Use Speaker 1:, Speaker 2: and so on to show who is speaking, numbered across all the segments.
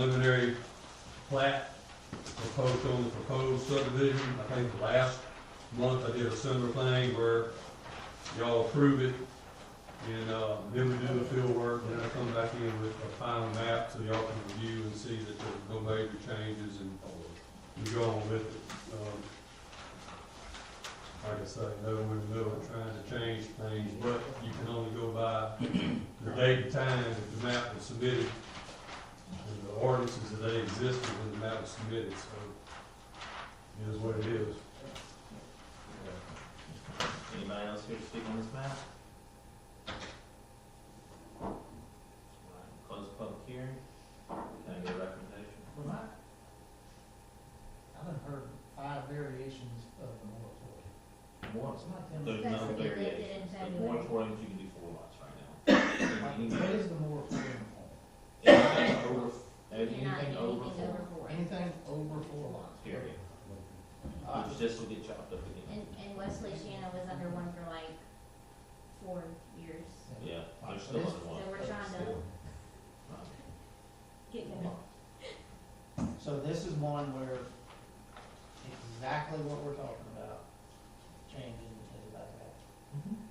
Speaker 1: preliminary plat proposed on the proposed subdivision. I think the last month I did a similar thing where y'all approve it and, uh, then we do the field work, then I come back in with a final map so y'all can review and see that there's no major changes and we go on with it. Um, Like I say, no, we're in the middle of trying to change things, but you can only go by the date and time that the map was submitted and the ordinances that they existed when the map was submitted, so it is what it is.
Speaker 2: Anybody else here to speak on this map? Alright, Close the public hearing. Can I get a recommendation?
Speaker 3: Well, I, I done heard five variations of the moratorium.
Speaker 2: More,
Speaker 4: That's
Speaker 2: there's no
Speaker 4: what they did
Speaker 2: variation.
Speaker 4: in
Speaker 2: There's
Speaker 4: February.
Speaker 2: moratoriums, you can do four lots right now.
Speaker 3: What
Speaker 2: Anything
Speaker 3: is the moratorium on?
Speaker 2: anything over,
Speaker 4: Cannot do
Speaker 2: anything over
Speaker 4: anything
Speaker 2: four,
Speaker 4: over four.
Speaker 3: Anything over four lots?
Speaker 2: period.
Speaker 3: Uh,
Speaker 2: Which this will get chopped up again.
Speaker 4: And, and Wesley Shannon was under one for like four years,
Speaker 2: Yeah, there's still
Speaker 3: This-
Speaker 2: under
Speaker 4: so
Speaker 2: one.
Speaker 4: we're trying to get them.
Speaker 3: So this is one where exactly what we're talking about, changing is about that,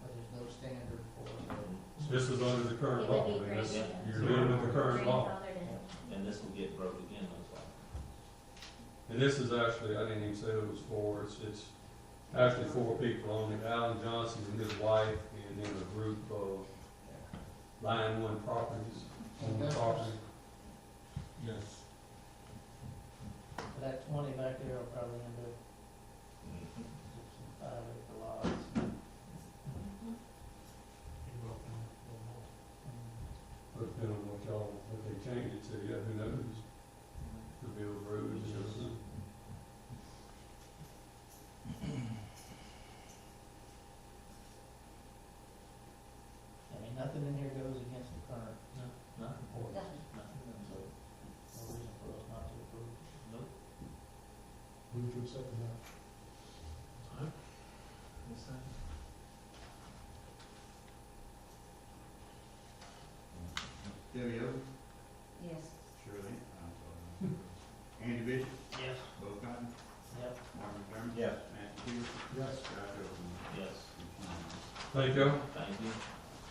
Speaker 3: but there's no standard for it.
Speaker 1: This is under the current
Speaker 4: It
Speaker 1: law,
Speaker 4: would be
Speaker 1: I mean, that's,
Speaker 2: great,
Speaker 1: you're dealing with the current law.
Speaker 4: Grandfathered in.
Speaker 2: And this will get broke again, that's why.
Speaker 1: And this is actually, I didn't even say it was four, it's, it's actually four people on it, Alan Johnson and his wife, and then a group of Line One Properties on the property. Yes.
Speaker 3: But That twenty back there will probably end up Mm-hmm. five acre lots.
Speaker 4: Mm-hmm.
Speaker 1: But then what y'all, what they changed it to, yeah, who knows, could be over, it was just,
Speaker 3: I mean, nothing in here goes against the current
Speaker 2: Nothing,
Speaker 3: ordinance,
Speaker 4: Nothing.
Speaker 2: nothing,
Speaker 3: so no reason for us not to approve.
Speaker 2: nope.
Speaker 1: Move to accept that.
Speaker 2: Yes, sir.
Speaker 5: Debbie Owen,
Speaker 4: Yes.
Speaker 5: Shirley, I'm sorry. Andy Bishop,
Speaker 3: Yes.
Speaker 5: Bo Cotton,
Speaker 3: Yep.
Speaker 5: Mark McDermott.
Speaker 2: Yes.
Speaker 5: Matt Peters.
Speaker 1: Yes.
Speaker 5: Scott Hilton.
Speaker 2: Yes,
Speaker 1: Thank you.
Speaker 2: thank you.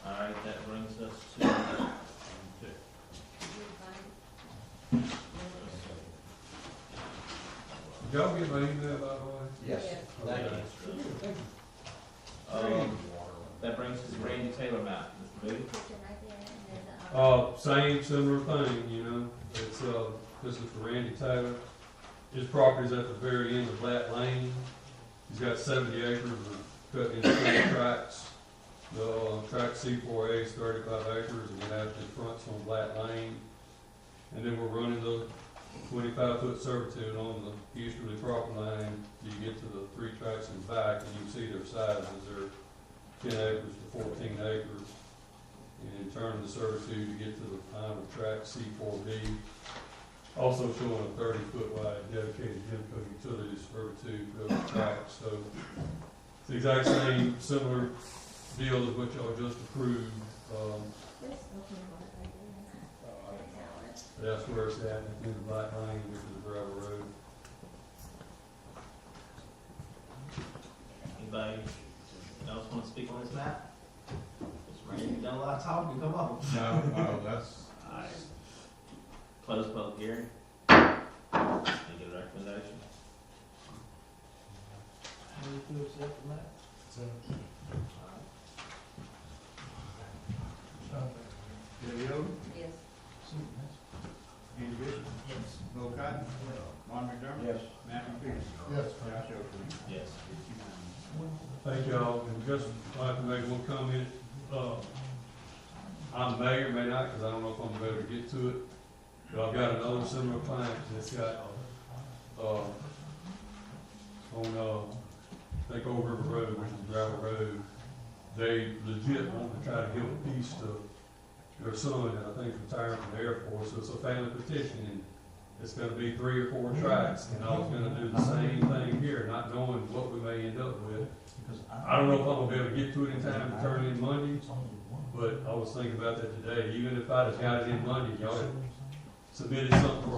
Speaker 2: All right, that brings us to,
Speaker 1: Did y'all get my email, by the way?
Speaker 2: thank
Speaker 1: Okay.
Speaker 2: you. Um, that brings us to Randy Taylor map, Mr. Moody.
Speaker 4: Picture right there, and there's a-
Speaker 2: Oh.
Speaker 1: Uh, same similar thing, you know, it's, uh, this is for Randy Taylor. His property's at the very end of Black Lane. He's got seventy acres of cut in two tracts. The, uh, track C four A is thirty-five acres and it has the fronts on Black Lane. And then we're running the twenty-five foot servitude on the easterly property line. till You get to the three tracts in back and you can see their sizes, they're ten acres to fourteen acres and in turn the servitude to get to the final track C four B. Also showing a thirty foot wide dedicated Genco utilities servitude for those tracks, so it's the exact same, similar deal as what y'all just approved, um,
Speaker 4: There's open lot right there. That's ours.
Speaker 1: but that's where it's at, it's in the black lane, which is the gravel road.
Speaker 2: Anybody else want to speak on this map? Mr. Randy, you've done a lot of talking, come on.
Speaker 5: No, no, that's.
Speaker 2: All right. Close public hearing. Can I get a recommendation?
Speaker 3: Move to accept the map.
Speaker 2: All
Speaker 5: Debbie Owen,
Speaker 4: Yes.
Speaker 5: Andy Bishop,
Speaker 3: Yes.
Speaker 5: Bo Cotton, Mark McDermott.
Speaker 2: Yes.
Speaker 5: Matt Peters.
Speaker 1: Yes.
Speaker 5: Scott Hilton.
Speaker 2: right, Yes.
Speaker 5: It's unanimous.
Speaker 1: Thank y'all, and just like to make one comment, uh, I'm mayor, may not, cause I don't know if I'm gonna be able to get to it, but I've got another similar client that's got, uh, on, uh, I think Old River Road, which is gravel road, they legit want to try to give a piece to their son, and I think retired from the Air Force, so it's a family petition, and it's gonna be three or four tracks, and I was gonna do the same thing here, not knowing what we may end up with. I don't know if I'm gonna be able to get to it in time to turn it in uh, Monday, but I was thinking about that today, even if I'd have got it in Monday, y'all, submitted something for a